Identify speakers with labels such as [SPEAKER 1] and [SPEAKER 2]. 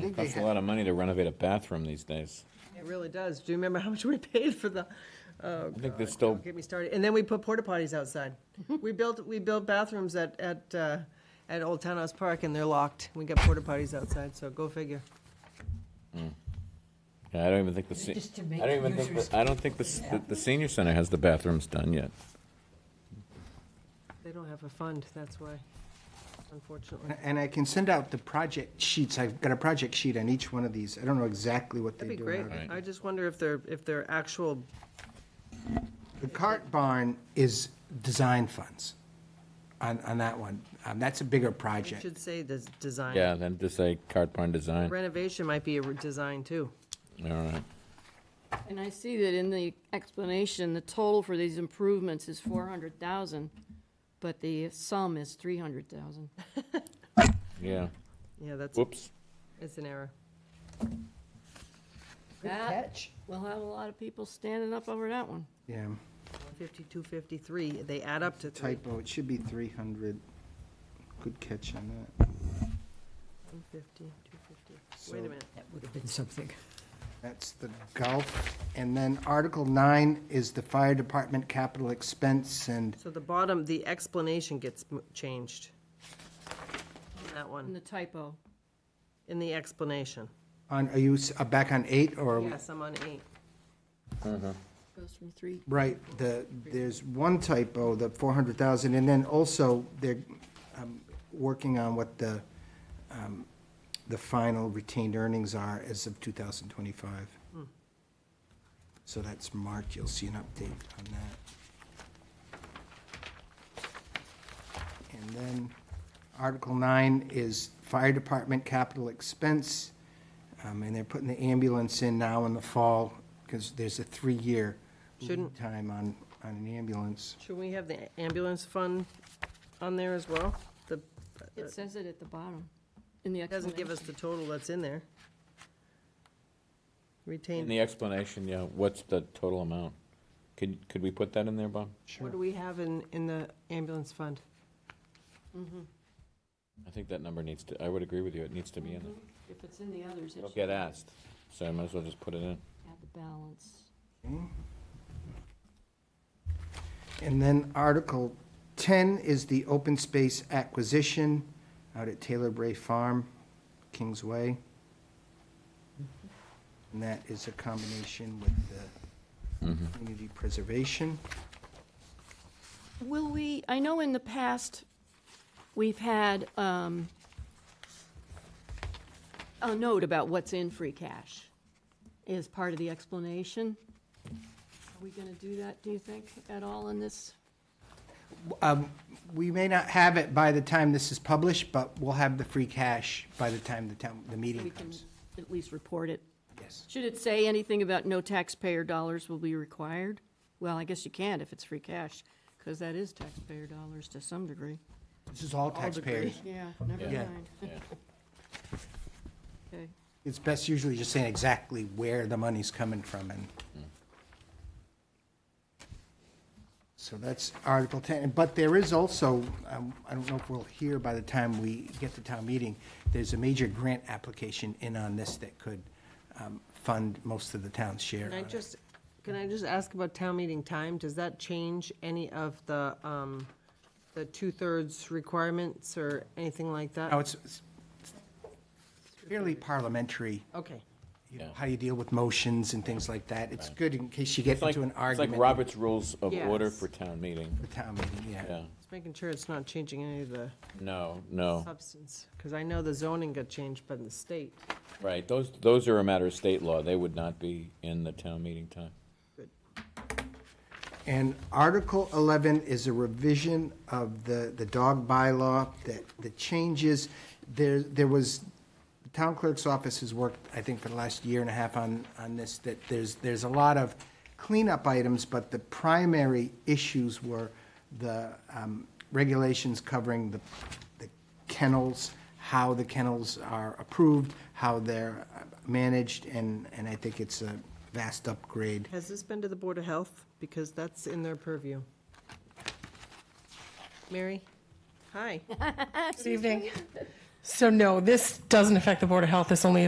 [SPEAKER 1] think they
[SPEAKER 2] Costs a
[SPEAKER 1] have,
[SPEAKER 2] lot of money to renovate a bathroom these days.
[SPEAKER 3] It really does. Do you remember how much we paid for the, oh,
[SPEAKER 2] I think they're
[SPEAKER 3] God,
[SPEAKER 2] still,
[SPEAKER 3] don't get me started. And then we put porta potties outside. We built, we built bathrooms at, at, uh, at Old Townhouse Park and they're locked. We got porta potties outside, so go figure.
[SPEAKER 2] Yeah, I don't even think the, se-
[SPEAKER 1] Just to
[SPEAKER 2] I
[SPEAKER 1] make
[SPEAKER 2] don't even think,
[SPEAKER 1] users-
[SPEAKER 2] the- I don't think the, s- the- the senior center has the bathrooms done yet.
[SPEAKER 3] They don't have a fund, that's why, unfortunately.
[SPEAKER 1] and I can send out the project sheets. I've got a project sheet on each one of these. I don't know exactly what they
[SPEAKER 3] That'd
[SPEAKER 1] do.
[SPEAKER 3] be great.
[SPEAKER 1] now.
[SPEAKER 2] Right.
[SPEAKER 3] I just wonder if they're, if they're actual,
[SPEAKER 1] The cart barn is design funds on, on that one. Um, that's a bigger
[SPEAKER 3] it
[SPEAKER 1] project.
[SPEAKER 3] should say des- design.
[SPEAKER 2] Yeah, then just say cart barn design, all
[SPEAKER 3] Renovation might be a re- design too.
[SPEAKER 2] right.
[SPEAKER 4] And I see that in the explanation, the total for these improvements is four hundred thousand, but the sum is three hundred thousand.
[SPEAKER 2] Yeah,
[SPEAKER 3] Yeah, that's,
[SPEAKER 2] whoops.
[SPEAKER 3] it's an error.
[SPEAKER 4] That, we'll have a lot of people standing up over that one.
[SPEAKER 1] Yeah,
[SPEAKER 3] Fifty-two, fifty-three, they add up to three.
[SPEAKER 1] typo. It should be three hundred. Good catch on that.
[SPEAKER 3] One fifty, two fifty.
[SPEAKER 1] So-
[SPEAKER 3] Wait a minute.
[SPEAKER 5] That would have been something.
[SPEAKER 1] That's the golf. And then Article nine is the fire department capital expense and
[SPEAKER 3] So the bottom, the explanation gets m- changed. On That
[SPEAKER 4] And
[SPEAKER 3] one,
[SPEAKER 4] the typo,
[SPEAKER 3] in the explanation.
[SPEAKER 1] on, are you s- uh, back on eight or? are we-
[SPEAKER 3] Yes, I'm on eight.
[SPEAKER 4] goes from three,
[SPEAKER 1] Right, the, there's one typo, the four hundred thousand, and then also they're, um, working on what the, um, the final retained earnings are as of two thousand twenty-five.
[SPEAKER 3] Hmm.
[SPEAKER 1] So that's marked, you'll see an update on that. And then Article nine is fire department capital expense. Um, and they're putting the ambulance in now in the fall, because there's a three-year lead
[SPEAKER 3] Shouldn't-
[SPEAKER 1] time on, on an ambulance.
[SPEAKER 3] Should we have the ambulance fund on there as well? The,
[SPEAKER 4] it says it at the bottom, in the
[SPEAKER 3] it doesn't give
[SPEAKER 4] explanation.
[SPEAKER 3] us the total that's in there.
[SPEAKER 2] In
[SPEAKER 3] Retained,
[SPEAKER 2] the explanation, yeah, what's the total amount? Could, could we put that in there, Bob?
[SPEAKER 1] Sure.
[SPEAKER 3] what do we have in, in the ambulance fund?
[SPEAKER 2] I think that number needs to, I would agree with you, it needs to be in there.
[SPEAKER 4] If it's in the others, it
[SPEAKER 2] It'll
[SPEAKER 4] should
[SPEAKER 2] get asked, so I might as well just put it in.
[SPEAKER 4] have the balance.
[SPEAKER 1] And then Article 10 is the open space acquisition out at Taylor Bray Farm, Kings Way. And that is a combination with the community preservation.
[SPEAKER 4] Will we, I know in the past, we've had um, a note about what's in free cash as part of the explanation. Are we going to do that, do you think, at all in this?
[SPEAKER 1] Um, We may not have it by the time this is published, but we'll have the free cash by the time the town, the
[SPEAKER 4] We
[SPEAKER 1] meeting
[SPEAKER 4] can
[SPEAKER 1] comes.
[SPEAKER 4] at least report it.
[SPEAKER 1] Yes.
[SPEAKER 4] Should it say anything about no taxpayer dollars will be required? Well, I guess you can't if it's free cash, because that is taxpayer dollars to some degree.
[SPEAKER 1] This is all taxpayers.
[SPEAKER 4] Yeah, never
[SPEAKER 1] Yeah.
[SPEAKER 4] mind.
[SPEAKER 2] Yeah.
[SPEAKER 4] Okay.
[SPEAKER 1] It's best usually just saying exactly where the money's coming from and. So that's Article 10, but there is also, um, I don't know if we'll hear by the time we get to town meeting, there's a major grant application in on this that could um, fund most of the town's share.
[SPEAKER 3] Can I
[SPEAKER 1] on it.
[SPEAKER 3] just, can I just ask about town meeting time? Does that change any of the, um, the two-thirds requirements or anything like
[SPEAKER 1] Now,
[SPEAKER 3] that?
[SPEAKER 1] it's it's fairly parliamentary,
[SPEAKER 3] Okay.
[SPEAKER 1] you know,
[SPEAKER 2] Yeah.
[SPEAKER 1] how you deal with motions and things like that. It's good in case you get
[SPEAKER 2] It's like,
[SPEAKER 1] into an
[SPEAKER 2] it's like
[SPEAKER 1] argument at
[SPEAKER 2] Robert's Rules of Order
[SPEAKER 3] Yes.
[SPEAKER 2] for town meeting,
[SPEAKER 1] the town meeting, yeah.
[SPEAKER 2] yeah.
[SPEAKER 3] Just making sure it's not changing any of the
[SPEAKER 2] No, no,
[SPEAKER 3] substance, because I know the zoning got changed by the state.
[SPEAKER 2] right, those, those are a matter of state law, they would not be in the town meeting time.
[SPEAKER 1] And Article 11 is a revision of the, the dog bylaw that, the changes, there, there was, the town clerk's office has worked, I think, for the last year and a half on, on this, that there's, there's a lot of cleanup items, but the primary issues were the um, regulations covering the, the kennels, how the kennels are approved, how they're uh, managed, and, and I think it's a vast upgrade.
[SPEAKER 3] Has this been to the Board of Health? Because that's in their purview. Mary? Hi.
[SPEAKER 6] Good evening. So no, this doesn't affect the Board of Health. This only